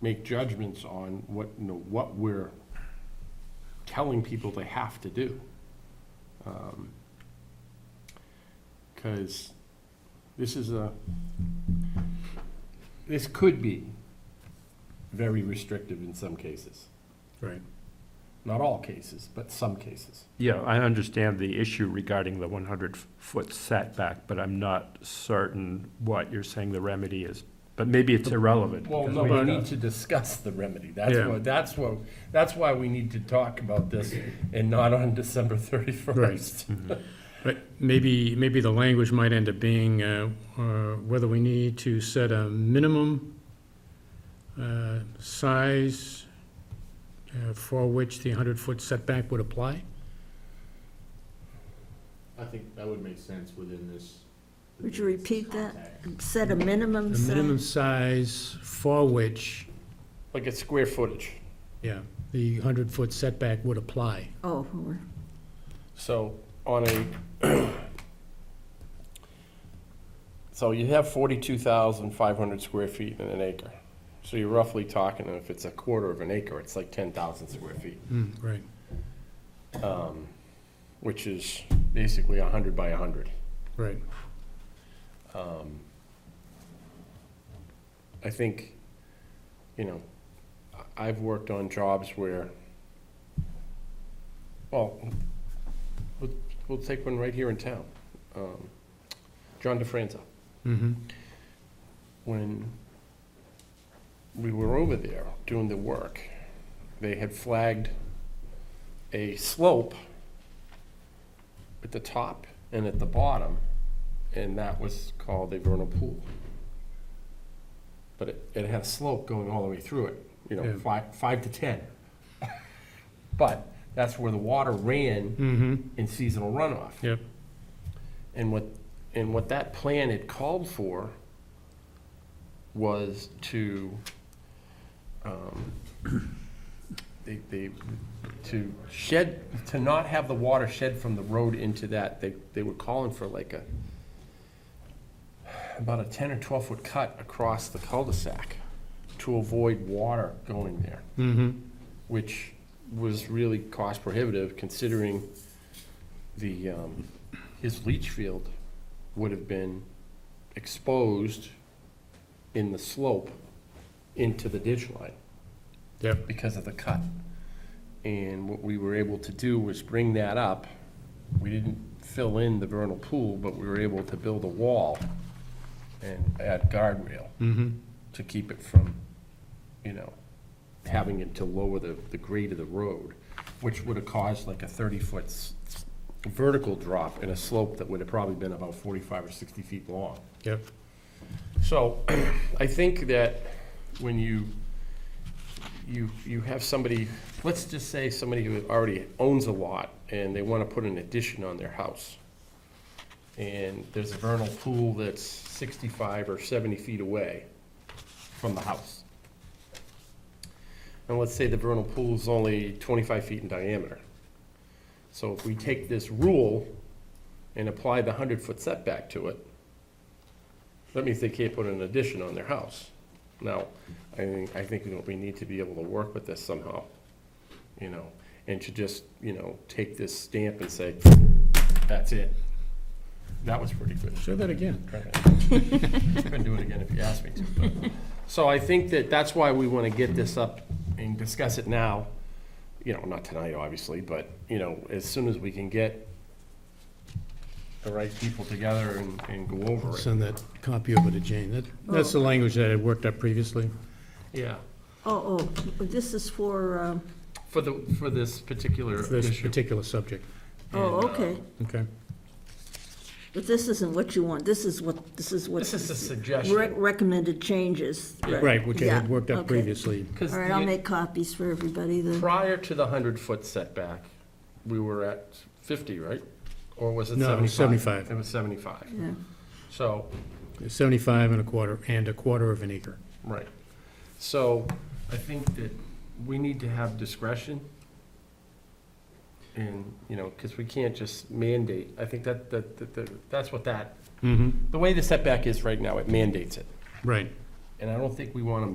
make judgments on what, you know, what we're telling people they have to do. Um, Because this is a, this could be very restrictive in some cases. Right. Not all cases, but some cases. Yeah, I understand the issue regarding the 100-foot setback, but I'm not certain what you're saying the remedy is. But maybe it's irrelevant. Well, because no, we- we need to discuss the remedy. That's Yeah. what, that's what, that's why we need to talk about this and not on December thirty-first. But maybe, maybe the language might end up being uh, uh, whether we need to set a minimum uh, size uh, for which the 100-foot setback would apply? I think that would make sense within this. Would you repeat that? context. Set a The minimum minimum size? size for which, Like a square footage. yeah, the 100-foot setback would apply. Oh, we're- So on a, so you have forty-two thousand five hundred square feet in an acre. So you're roughly talking, if it's a quarter of an acre, it's like ten thousand square feet, Hmm, Right. um, which is basically a hundred by a hundred. Right, Um, I think, you know, I- I've worked on jobs where, well, we'll, we'll take one right here in town. Um, John DeFranza, mm-hmm, when we were over there doing the work, they had flagged a slope at the top and at the bottom, and that was called a vernal pool. But it, it had a slope going all the way through it, you know, Yeah. five, five to ten. But that's where the water ran mm-hmm, in seasonal runoff. yep, And what, and what that plan had called for was to, um, they, they, to shed, to not have the water shed from the road into that, they, they were calling for like a, about a ten or twelve foot cut across the cul-de-sac to avoid water going there mm-hmm, which was really cost prohibitive considering the, um, his leach field would have been exposed in the slope into the ditch line yep. because of the cut. And what we were able to do was bring that up. We didn't fill in the vernal pool, but we were able to build a wall and add guardrail Mhm. to keep it from, you know, having it to lower the, the grade of the road, which would have caused like a thirty-foot vertical drop in a slope that would have probably been about forty-five or sixty feet long. Yep, So I think that when you, you, you have somebody, let's just say somebody who already owns a lot and they want to put an addition on their house. And there's a vernal pool that's 65 or 70 feet away from the house. And let's say the vernal pool is only 25 feet in diameter. So if we take this rule and apply the 100-foot setback to it, that means they can't put an addition on their house. Now, I think, I think you know, we need to be able to work with this somehow, you know, and to just, you know, take this stamp and say, that's it. That was pretty good. say that again. Couldn't do it again if you asked me to. but- So I think that that's why we want to get this up and discuss it now. You know, not tonight, obviously, but, you know, as soon as we can get the right people together and, and go over it. Send that copy over to Jane. That, that's the language that I worked up previously. Yeah. oh, oh, this is for, um, For the, for this particular for this issue. particular subject, oh, And, uh, okay. okay? But this isn't what you want. This is what, this is what. This is a Rec- suggestion. Recommended changes. Right, which I had Yeah, worked up okay. previously. Because All right, I'll make copies for everybody then. prior to the hundred foot setback, we were at fifty, right? Or was it No, it seventy-five? was 75. It was seventy-five. Yeah. So, 75 and a quarter, and a quarter of an acre. right. So I think that we need to have discretion. And, you know, because we can't just mandate. I think that, that, that- that, that's what that, Mm-hmm. the way the setback is right now, it mandates it. Right. And I don't think we want to